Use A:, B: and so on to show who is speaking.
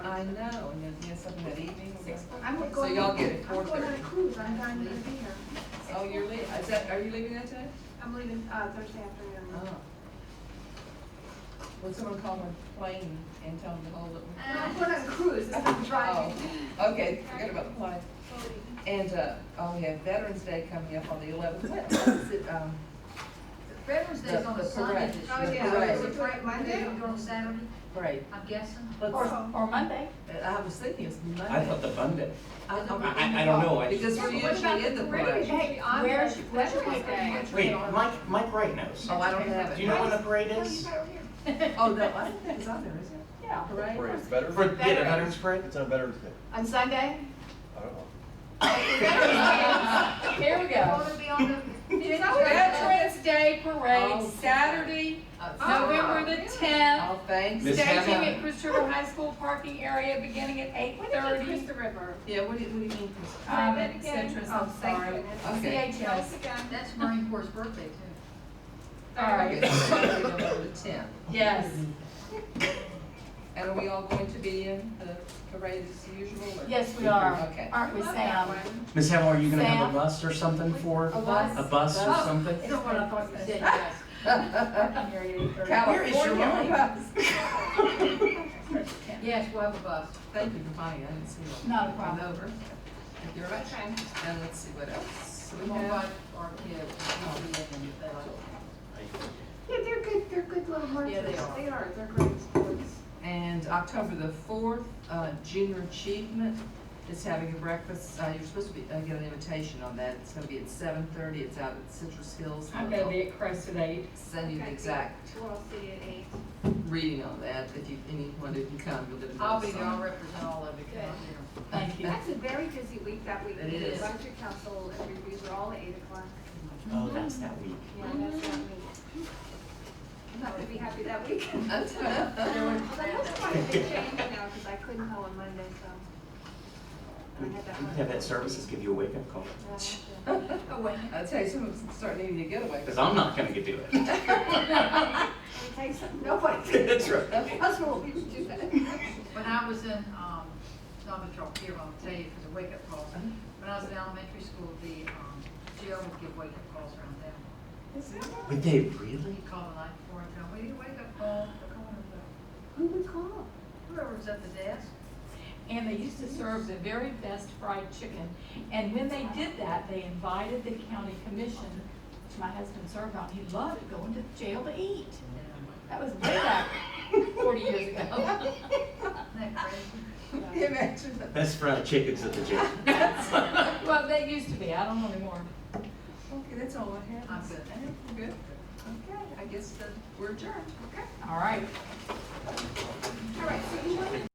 A: I'm
B: So
A: going,
B: y'all
A: on-
B: get it,
A: I'm
B: four
A: going on a
B: thirty.
A: cruise, I'm not gonna be here.
B: Oh, you're leaving, is that, are you leaving that today?
A: I'm leaving, uh, Thursday afternoon.
B: Oh. Would someone call my plane and tell them to hold it?
A: No, I'm going on a cruise, it's not driving.
B: Oh, Okay, forget about the plane. And, uh, oh, yeah, Veterans Day coming up on the eleventh, what, what is it, um,
C: Veterans Day's
B: The-
C: on a
B: the
C: Sunday
B: parade.
C: this year.
A: Oh, yeah.
B: Right.
C: Is it right Monday,
A: Yeah.
C: you're on Saturday,
B: parade?
C: I'm guessing?
B: Let's-
D: Or, or Monday.
B: I was thinking it's Monday.
E: I thought the Monday.
B: I don't.
E: I- I- I don't know, I-
B: Because
E: Yeah,
B: we're
E: but
B: usually in the parade.
D: Hey, where's, where's your birthday?
E: Wait, Mike, Mike Wright knows.
B: Oh, I don't have it.
E: Do you know when the parade is?
B: Oh, no, I don't think it's on there, is it?
D: Yeah.
B: Parade?
F: Parade, better?
E: For, yeah, the Veterans Parade?
F: It's on Veterans Day.
D: On Sunday?
F: I don't know.
D: Here we go.
C: to be on
D: It's Veterans Day Parade, Saturday, November the tenth,
B: Oh, Uh, thanks.
E: Miss
D: staging
E: Hannah.
D: at Chris River High School parking area beginning at eight thirty.
A: River.
B: Yeah, what do you, what do you mean? Chris?
D: Um,
A: Say that again.
D: Citrus,
A: Oh,
D: I'm
A: thank
D: sorry.
A: goodness.
B: Okay.
D: CHS.
C: That's Marine Corps' birthday too.
D: All right.
B: Okay, so we're gonna go to the 10th.
D: Yes.
B: And are we all going to be in the parade as usual? or-
D: Yes, we are.
B: Okay.
D: Aren't we, um, Sam?
E: Miss Hannah, are you gonna have
D: Sam?
E: a bus or something for,
D: bus?
E: a bus or
B: Oh.
E: something?
D: It's not what I thought you said, yes. Parking area at 8:30.
B: California.
C: Yes, we'll have a bus.
B: Thank you for buying, I didn't see that.
D: Not a problem.
B: Over. You're right. And let's see what else
C: We
B: we
C: won't
B: have.
C: invite our kids. We'll be in them if they like it.
A: Yeah, they're good, they're good little marchers.
C: they are.
A: They are, they're great sports.
B: And October the fourth, uh, Junior Achievement is having a breakfast. Uh, you're supposed to be, uh, get an invitation on that. It's gonna be at seven thirty. It's out at Citrus Hills.
D: I'm gonna be at Crested Eight.
B: Send you the
A: Okay.
B: exact
A: We'll see at eight.
B: reading on that. If you, anyone who can come, you'll get a
C: I'll be
B: notice
C: there, I'll
B: on it.
C: represent all of you, come on there.
D: Thank you.
A: That's a very busy week that week.
B: It
A: The
B: is.
A: Budget council and reviews are all at eight o'clock.
E: Oh, that's that week.
A: Yeah, that's not me. I'm not gonna be happy that week. Although that's why they changed now, because I couldn't go on Monday, so. And I had that.
E: You Have that services give you a wake-up call,
A: Yeah, I have to-
D: Oh,
B: I'll tell you, someone's starting needing to get away.
E: because I'm not gonna do it.
A: It takes, nobody,
E: That's right.
A: us will be to do that.
C: When I was in, um, not that y'all care, but I'll tell you for the wake-up calls. When I was in elementary school, the, um, jail would give wake-up calls around town.
E: Would they really?
C: He'd call the night before and tell, we need a wake-up call, We're coming to the-"
A: Who would call?
C: whoever was at the desk.
D: And they used to serve the very best fried chicken. And when they did that, they invited the county commission, which my husband served on. He loved going to jail to eat. That was way back forty years ago.
C: Isn't that crazy?
B: Imagine that.
E: Best fried chickens at the jail.
D: Well, they used to be, I don't know anymore.
B: Okay, that's all I have.
C: I'm good.
B: Good? Okay, I guess that we're adjourned. Okay.
D: All right.